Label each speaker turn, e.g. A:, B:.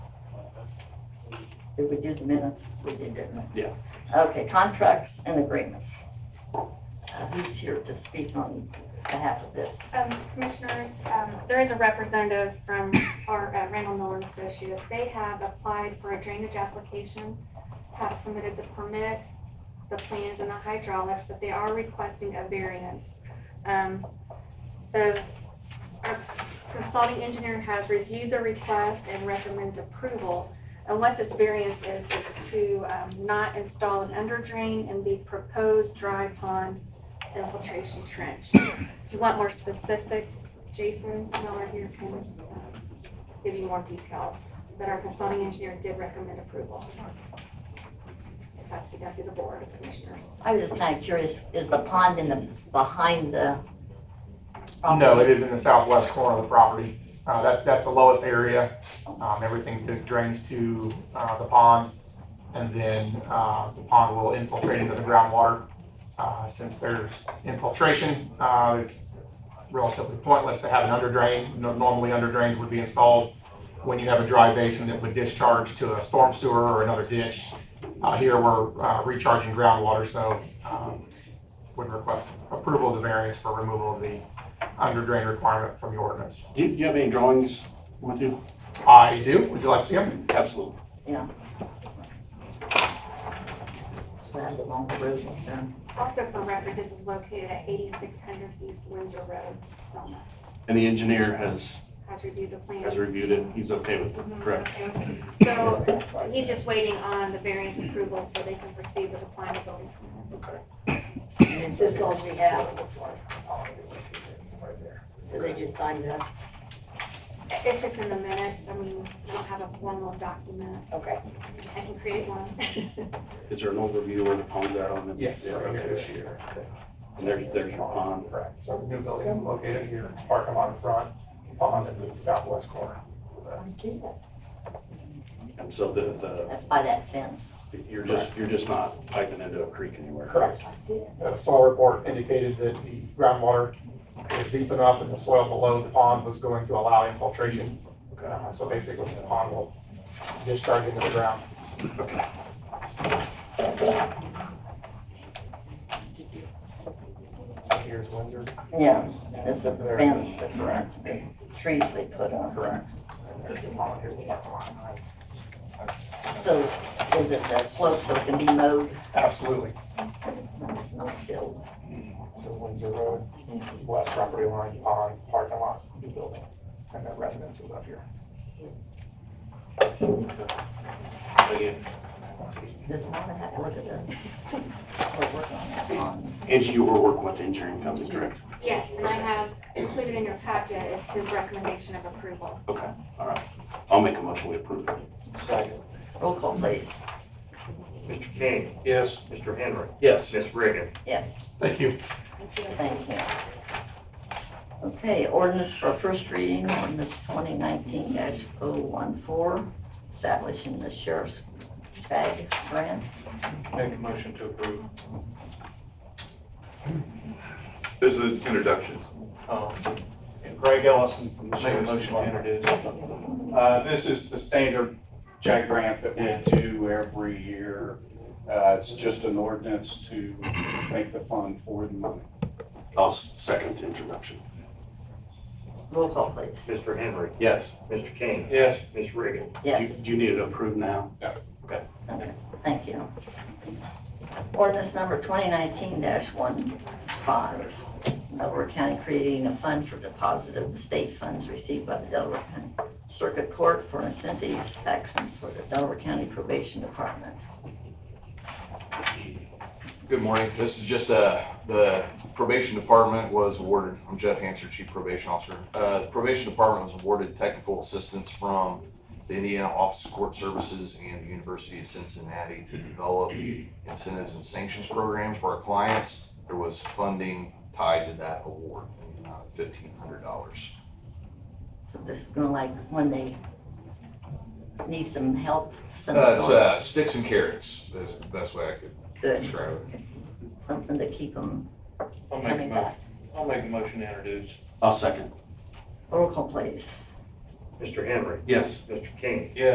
A: Did we do the minutes? We did, didn't we?
B: Yeah.
A: Okay, contracts and agreements. Uh, Who's here to speak on behalf of this?
C: Um, Commissioners, um, there is a representative from our uh, Randall Miller and Associates. They have applied for a drainage application, have submitted the permit, the plans, and the hydraulics, but they are requesting a variance. Um, So our consulting engineer has reviewed the request and recommends approval. And what this variance is, is to um, not install an under drain in the proposed dry pond infiltration trench. If you want more specifics, Jason Miller here can uh, give you more details, but our consulting engineer did recommend approval. This has to be done through the board of commissioners.
A: I was just kind of curious, is the pond in the, behind the? Um,
D: No, it is in the southwest corner of the property. Uh, that's, that's the lowest area. Um, everything that drains to, uh, the pond. And then, uh, the pond will infiltrate into the groundwater. Uh, since there's infiltration, uh, it's relatively pointless to have an under drain. No- Normally, under drains would be installed when you have a dry basin that would discharge to a storm sewer or another ditch. Uh, here, we're, uh, recharging groundwater, so, um, would request approval of the variance for removal of the under drain requirement from the ordinance.
B: Do you, do you have any drawings with you?
D: I do, would you like to see them?
B: Absolutely.
A: So that's along the road up there.
C: Also for record, this is located at 8600 East Windsor Road, Selma.
B: And the engineer has,
C: Has reviewed the plans.
B: has reviewed it, he's okay with it,
C: Mhm,
B: correct?
C: okay. So he's just waiting on the variance approval so they can proceed with applying the building permit.
B: Okay.
E: Is this all we have? So they just signed this?
C: It's just in the minutes, I mean, we don't have a formal document.
E: Okay.
C: I can create one.
B: Is there an overview where the pond's at on the?
D: Yes.
B: Yeah, okay. And there's, there's your pond.
D: Correct, so the new building located here, parking lot in front, pond in the southwest corner.
B: And so the,
A: That's by that fence.
B: the, you're just, you're just not piping into a creek anywhere.
D: Correct. The soil report indicated that the groundwater is deep enough and the soil below the pond was going to allow infiltration. Uh, So basically, the pond will discharge into the ground. So here's Windsor.
A: Yeah, this is the fence that, the trees they put on.
D: Correct. And there's the pond, here's the parking lot.
A: So is it a slope so it can be mowed?
D: Absolutely.
A: It's not filled.
D: So Windsor Road, west property line, pond, parking lot, new building, and then residences up here.
B: Again,
A: Does Marvin have to look at the? We're working on that pond.
B: Angie, you were working with the engineering company, correct?
C: Yes, and I have included in your packet is his recommendation of approval.
B: I'll make a motion, we approve it.
A: Roll call, please.
F: Mr. King,
B: Yes.
F: Mr. Henry,
B: Yes.
F: Miss Reagan,
A: Yes.
D: Thank you.
A: Thank you. Okay, ordinance for first reading, ordinance twenty nineteen 14 establishing the sheriff's bag grant.
B: Make a motion to approve.
G: This is introductions.
B: Uh,
H: Greg Ellison from the
B: Make a
H: Sheriff's
B: motion to
H: Department.
B: introduce.
H: Uh, This is the standard check grant that we do every year. Uh, It's just an ordinance to make the fund for the money.
B: I'll second the introduction.
A: Roll call, please.
F: Mr. Henry,
B: Yes.
F: Mr. King,
B: Yes.
F: Miss Reagan,
B: Do
A: Yes,
B: do you need it approved now?
A: thank you. Ordinance number twenty nineteen 15 Delaware County creating a fund for deposit of the state funds received by the Delaware County Circuit Court for incentive sections for the Delaware County Probation Department.
I: Good morning. This is just, uh, the probation department was awarded, I'm Jeff Hanser, Chief Probation Officer. Uh, the probation department was awarded technical assistance from the Indiana Office of Court Services and the University of Cincinnati to develop incentives and sanctions programs for our clients. There was funding tied to that award, in the amount of fifteen hundred dollars.
A: So this is gonna like when they need some help, some
I: Uh, it's,
A: sort,
I: uh, sticks and carrots, is the best way I could
A: good,
I: describe it.
A: something to keep them
H: I'll
A: coming back.
H: I'll make a motion to introduce.
B: I'll second.
A: Roll call, please.
F: Mr. Henry,
B: Yes.
F: Mr. King,